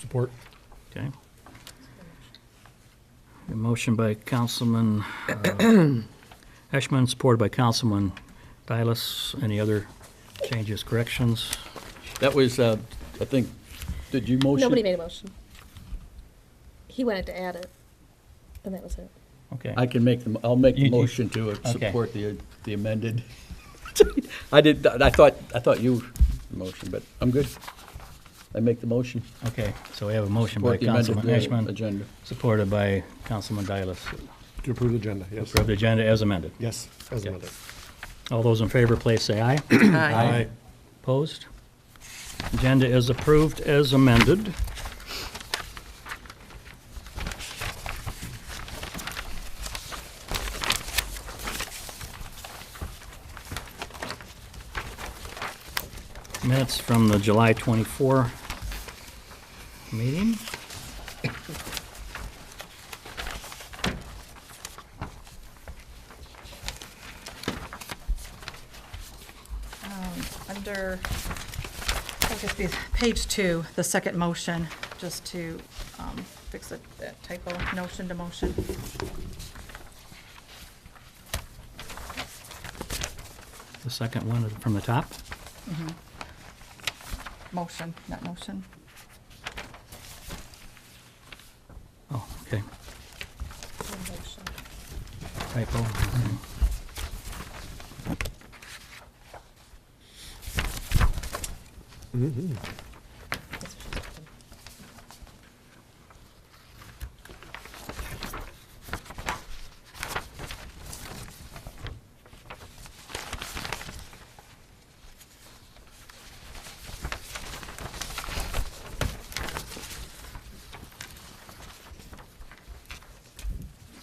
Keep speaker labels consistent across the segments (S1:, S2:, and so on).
S1: Support.
S2: Okay. A motion by Councilman uh, Eshman, supported by Councilman Dialis. Any other changes, corrections?
S3: That was, uh, I think, did you motion?
S4: Nobody made a motion. He wanted to add it, and that was it.
S2: Okay.
S3: I can make them, I'll make
S2: You-
S3: the
S2: you-
S3: motion to uh,
S2: Okay.
S3: support the the amended. I did, I thought, I thought you motioned, but I'm good. I make the motion.
S2: Okay, so we have a motion by
S3: Support the amended,
S2: Councilman
S3: uh,
S2: Eshman,
S3: Agenda.
S2: supported by Councilman Dialis.
S1: To approve the agenda, yes.
S2: Approve the agenda as amended.
S1: Yes, as
S2: Okay.
S1: amended.
S2: All those in favor, please say aye.
S1: Aye.
S2: Opposed? Agenda is approved as amended. Minutes from the July 24 meeting.
S5: Um, Under, I guess it's page two, the second motion, just to um, fix it, that typo, notion to motion.
S2: The second one is from the top.
S5: Motion, not motion.
S2: Oh, okay.
S4: No motion.
S2: Typo. okay.
S4: That's what she said.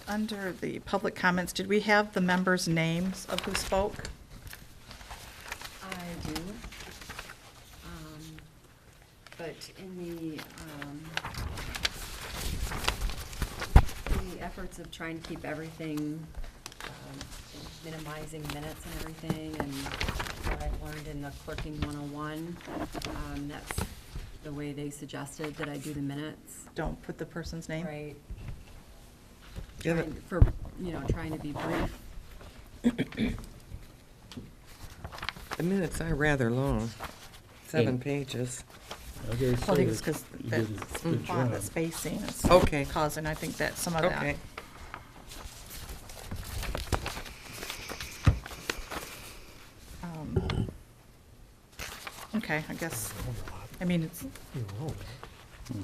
S5: Under the public comments, did we have the members' names of who spoke?
S6: I do. Um, But in the, um, the efforts of trying to keep everything, um, minimizing minutes and everything, and what I've learned in the clerking 101, um, that's the way they suggested that I do the minutes,
S5: Don't put the person's name.
S6: right?
S7: Yeah, but-
S6: Trying- For, you know, trying to be brief.
S7: The minutes are rather long, seven pages.
S3: Okay, so
S5: Well, I think it's because
S3: you
S5: that
S3: did a good
S5: font, the
S3: job.
S5: spacing is
S7: Okay.
S5: causing, I think, that some of
S7: Okay.
S5: that. um, Okay, I guess, I mean, it's, I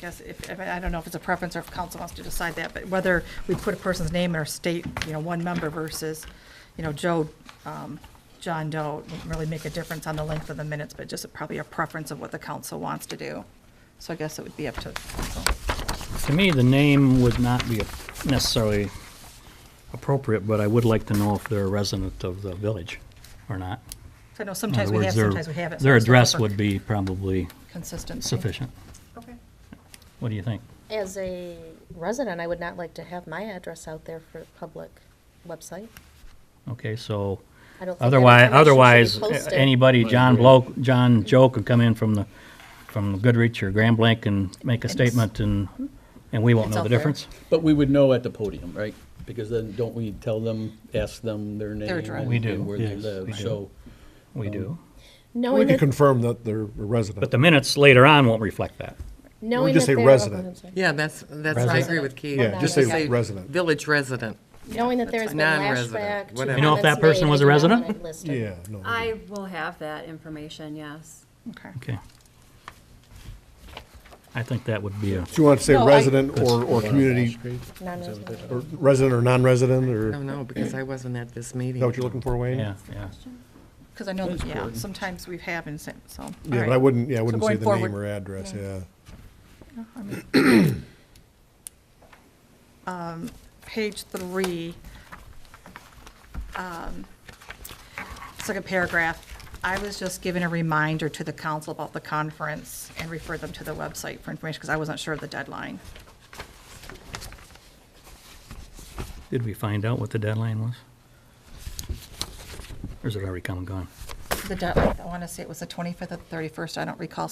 S5: guess if, if- I don't know if it's a preference or if council wants to decide that, but whether we put a person's name in or state, you know, one member versus, you know, Joe, um, John Doe, wouldn't really make a difference on the length of the minutes, but just probably a preference of what the council wants to do. So I guess it would be up to council.
S2: To me, the name would not be necessarily appropriate, but I would like to know if they're a resident of the village or not.
S5: I
S2: In
S5: know
S2: other
S5: sometimes we
S2: words,
S5: have,
S2: their-
S5: sometimes we haven't. so
S2: Their
S5: it's not
S2: address
S5: for
S2: would be probably
S5: Consistency.
S2: sufficient.
S6: Okay.
S2: What do you think?
S4: As a resident, I would not like to have my address out there for public website.
S2: Okay, so
S4: I don't think that
S2: otherwise,
S4: information
S2: otherwise,
S4: should be posted.
S2: a- anybody,
S3: I
S2: John
S3: agree.
S2: Bloke, John Joe could come in from the, from Goodrich or Grand Blanc and make a
S5: it's-
S2: statement and, and we won't
S5: It's
S2: know
S5: out
S2: the
S5: there.
S2: difference.
S3: But we would know at the podium, right? Because then, don't we tell them, ask them their name?
S5: address.
S3: and-
S2: We do,
S3: and Where they
S2: yes, we
S3: live,
S2: do.
S3: so.
S2: We do.
S1: We
S4: Knowing
S1: can
S4: that,
S1: confirm that they're a
S2: But
S1: resident.
S2: the minutes later on won't reflect that.
S4: knowing that
S1: just say
S4: they're. oh,
S1: resident.
S4: I'm sorry.
S7: Yeah, that's, that's, I agree with Keith.
S1: Yeah, just
S4: Yeah.
S1: say resident.
S7: Village resident.
S4: Knowing that there's been
S7: Non-resident,
S4: lashback. to
S7: whatever. You know
S2: if that
S4: comments
S2: person
S4: made,
S2: was a
S4: I do not
S2: resident?
S4: want it listed.
S1: Yeah, no.
S6: I will have that information, yes.
S5: Okay.
S2: Okay. I think that would be a,
S1: Do you want to say
S5: No, I-
S1: resident or, or community,
S4: Non-resident.
S1: or resident or non-resident,
S7: I
S1: or, is
S7: don't know, because I wasn't at this meeting.
S1: that what you're looking for, Wayne?
S2: yeah, yeah.
S5: Because I know, that- yeah,
S3: important.
S5: sometimes we have and so. so, all
S1: Yeah, but
S5: right.
S1: I wouldn't, yeah, I wouldn't say
S5: going
S1: the name or
S5: forward-
S1: address, yeah.
S5: I mean- Um, Page three, um, second paragraph, I was just giving a reminder to the council about the conference and referred them to the website for information because I wasn't sure of the deadline.
S2: Did we find out what the deadline was? Or is it already come and gone?
S5: The deadline, I want to say it was the 25th or 31st, I don't recall